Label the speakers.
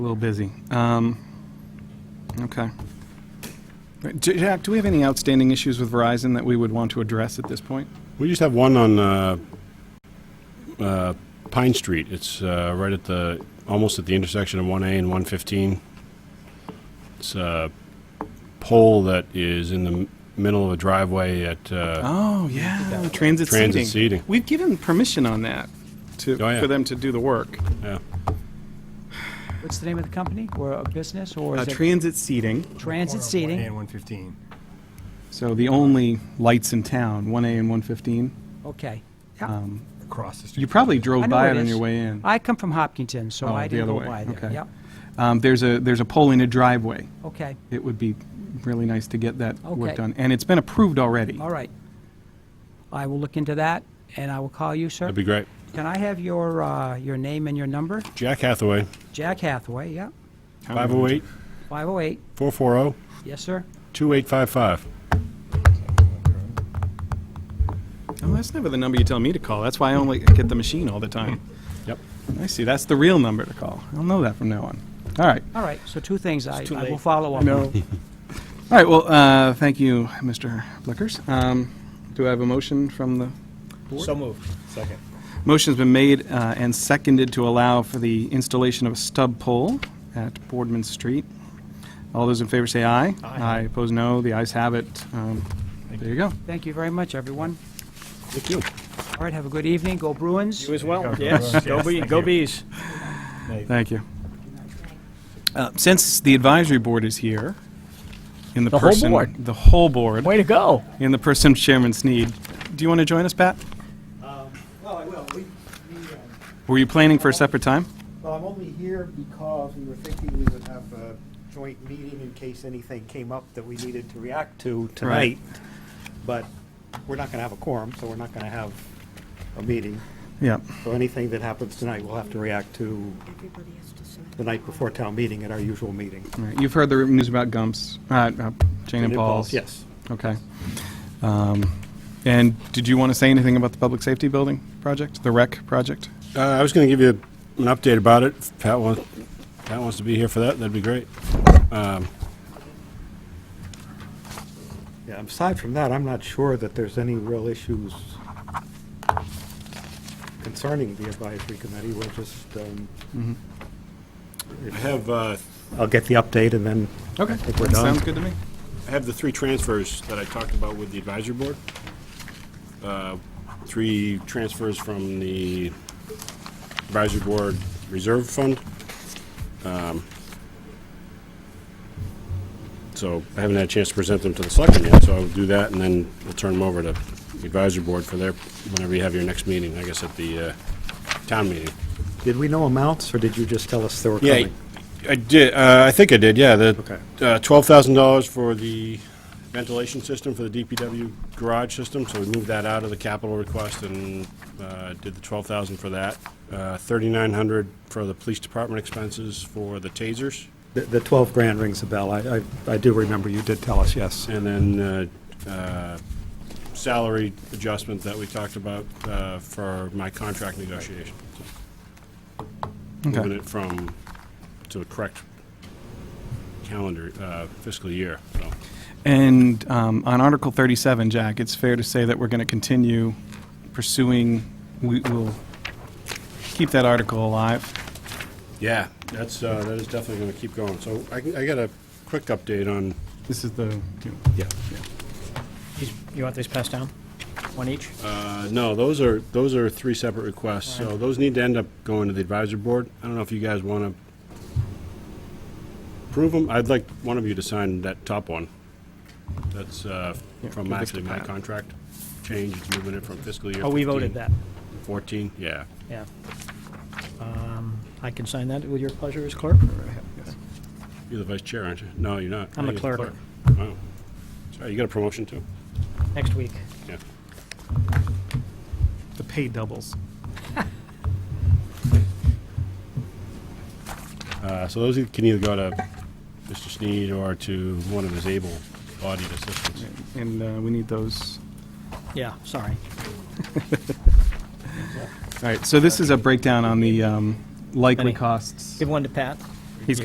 Speaker 1: A little busy. Um, Okay. Right, J- Jack, do we have any outstanding issues with Verizon that we would want to address at this point?
Speaker 2: We just have one on uh, uh, Pine Street. It's uh, right at the, almost at the intersection of 1A and 115. It's a pole that is in the m- middle of a driveway at, uh,
Speaker 1: Oh, yeah, transit seating.
Speaker 2: Transit seating.
Speaker 1: We've given permission on that to,
Speaker 2: Oh, yeah.
Speaker 1: for them to do the work.
Speaker 2: yeah.
Speaker 3: What's the name of the company or a business or
Speaker 1: Uh,
Speaker 3: is it
Speaker 1: Transit seating,
Speaker 3: transit
Speaker 4: And
Speaker 3: seating?
Speaker 4: 115.
Speaker 1: so the only lights in town, 1A and 115.
Speaker 3: Okay. Yeah.
Speaker 4: Across the street.
Speaker 1: You probably drove
Speaker 3: I know
Speaker 1: by
Speaker 3: where
Speaker 1: it
Speaker 3: it
Speaker 1: on
Speaker 3: is.
Speaker 1: your way in.
Speaker 3: I come from Hopkinton, so
Speaker 1: Oh,
Speaker 3: I
Speaker 1: the
Speaker 3: didn't
Speaker 1: other
Speaker 3: go
Speaker 1: way.
Speaker 3: by there.
Speaker 1: Okay.
Speaker 3: Yep.
Speaker 1: Um, There's a, there's a pole in a driveway.
Speaker 3: Okay.
Speaker 1: It would be really nice to get that work
Speaker 3: Okay.
Speaker 1: done. And it's been approved already.
Speaker 3: All right. I will look into that and I will call you, sir.
Speaker 2: That'd be great.
Speaker 3: Can I have your, uh, your name and your number?
Speaker 2: Jack Hathaway,
Speaker 3: Jack Hathaway, yeah. 508.
Speaker 2: 508-440-2855.
Speaker 3: Yes, sir.
Speaker 1: Oh, that's never the number you tell me to call. That's why I only get the machine all the time.
Speaker 2: Yep.
Speaker 1: I see. That's the real number to call. I'll know that from now on. All right.
Speaker 3: All right. So two things I,
Speaker 1: too
Speaker 3: I will
Speaker 1: late.
Speaker 3: follow up.
Speaker 1: No. All right. Well, uh, thank you, Mr. Blickers. Um, do I have a motion from the
Speaker 5: So moved. Second.
Speaker 1: Motion's been made uh, and seconded to allow for the installation of a stub pole at Boardman Street. All those in favor say aye.
Speaker 5: Aye.
Speaker 1: Opposed, no. The ayes have it. Um, There you go.
Speaker 3: Thank you very much, everyone.
Speaker 2: Thank you.
Speaker 3: All right. Have a good evening. Go Bruins.
Speaker 5: You as well,
Speaker 4: go
Speaker 5: yes.
Speaker 4: Bruins. Yes,
Speaker 5: Go Bee,
Speaker 4: thank
Speaker 5: go
Speaker 4: you.
Speaker 5: Bees.
Speaker 1: Thank you. Uh, Since the advisory board is here, in the
Speaker 5: The whole
Speaker 1: person...
Speaker 5: board.
Speaker 1: The whole board,
Speaker 5: Way to go.
Speaker 1: in the person Chairman Sneed, do you want to join us, Pat?
Speaker 6: Well, I will. We, we, um,
Speaker 1: Were you planning for a separate time?
Speaker 6: well, I'm only here because we were thinking we would have a joint meeting in case anything came up that we needed to react to
Speaker 1: Right.
Speaker 6: tonight. But we're not gonna have a quorum, so we're not gonna have a meeting.
Speaker 1: Yeah.
Speaker 6: So anything that happens tonight, we'll have to react to
Speaker 7: Everybody has to submit.
Speaker 6: the night before town meeting at our usual meeting.
Speaker 1: All right. You've heard the news about Gumps, uh, uh, Jane and Paul's.
Speaker 6: Yes.
Speaker 1: Okay. Um, And did you want to say anything about the public safety building project, the rec project?
Speaker 2: Uh, I was going to give you an update about it. If Pat wants, Pat wants to be here for that, that'd be great.
Speaker 6: Yeah, aside from that, I'm not sure that there's any real issues concerning the advisory committee. We'll just, um,
Speaker 2: I have, uh,
Speaker 6: I'll get the update and then
Speaker 1: Okay.
Speaker 6: think we're
Speaker 1: that
Speaker 6: done.
Speaker 1: Sounds good to me.
Speaker 2: I have the three transfers that I talked about with the advisory board. Uh, Three transfers from the advisory board reserve fund. Um, So I haven't had a chance to present them to the selectmen yet, so I'll do that, and then we'll turn them over to the advisory board for their, whenever you have your next meeting, I guess at the uh, town meeting.
Speaker 6: Did we know amounts, or did you just tell us they were
Speaker 2: Yeah,
Speaker 6: coming?
Speaker 2: I did, uh, I think I did, yeah, the,
Speaker 6: Okay.
Speaker 2: uh, twelve thousand dollars for the ventilation system for the DPW garage system, so we moved that out of the capital request and, uh, did the twelve thousand for that. Uh, thirty-nine hundred for the police department expenses for the tasers,
Speaker 6: The- The 12 grand rings a bell. I, I- I do remember you did tell us, yes.
Speaker 2: and then, uh, uh, salary adjustment that we talked about, uh, for my contract negotiation. Moving it from, to the correct calendar, uh, fiscal year, so.
Speaker 1: And um, on Article 37, Jack, it's fair to say that we're going to continue pursuing, we will keep that article alive.
Speaker 2: Yeah, that's, uh, that is definitely gonna keep going. So I, can- I got a quick update on,
Speaker 1: This is the,
Speaker 2: yeah.
Speaker 5: These- You want these passed down? One each?
Speaker 2: Uh, no, those are, those are three separate requests, so those need to end up going to the advisory board. I don't know if you guys wanna approve them. I'd like one of you to sign that top one. That's, uh,
Speaker 1: give
Speaker 2: from
Speaker 1: this
Speaker 2: actually
Speaker 1: to
Speaker 2: my
Speaker 1: Pat.
Speaker 2: contract change, it's moving it from fiscal year
Speaker 5: Oh, we
Speaker 2: 15
Speaker 5: voted that,
Speaker 2: Fourteen, yeah.
Speaker 5: yeah. Um, I can sign that with your pleasure as clerk?
Speaker 2: You're the vice chair, aren't you? No, you're not.
Speaker 5: I'm
Speaker 2: Now you're
Speaker 5: a
Speaker 2: the
Speaker 5: clerk.
Speaker 2: Wow. Sorry, you got a promotion too?
Speaker 5: Next week.
Speaker 2: Yeah.
Speaker 1: the pay doubles.
Speaker 2: Uh, So those can either go to Mr. Sneed or to one of his able-bodied assistants.
Speaker 1: And uh, we need those.
Speaker 5: Yeah, sorry.
Speaker 1: All right, so this is a breakdown on the um, likely
Speaker 5: Benny.
Speaker 1: costs.
Speaker 5: Give one to Pat.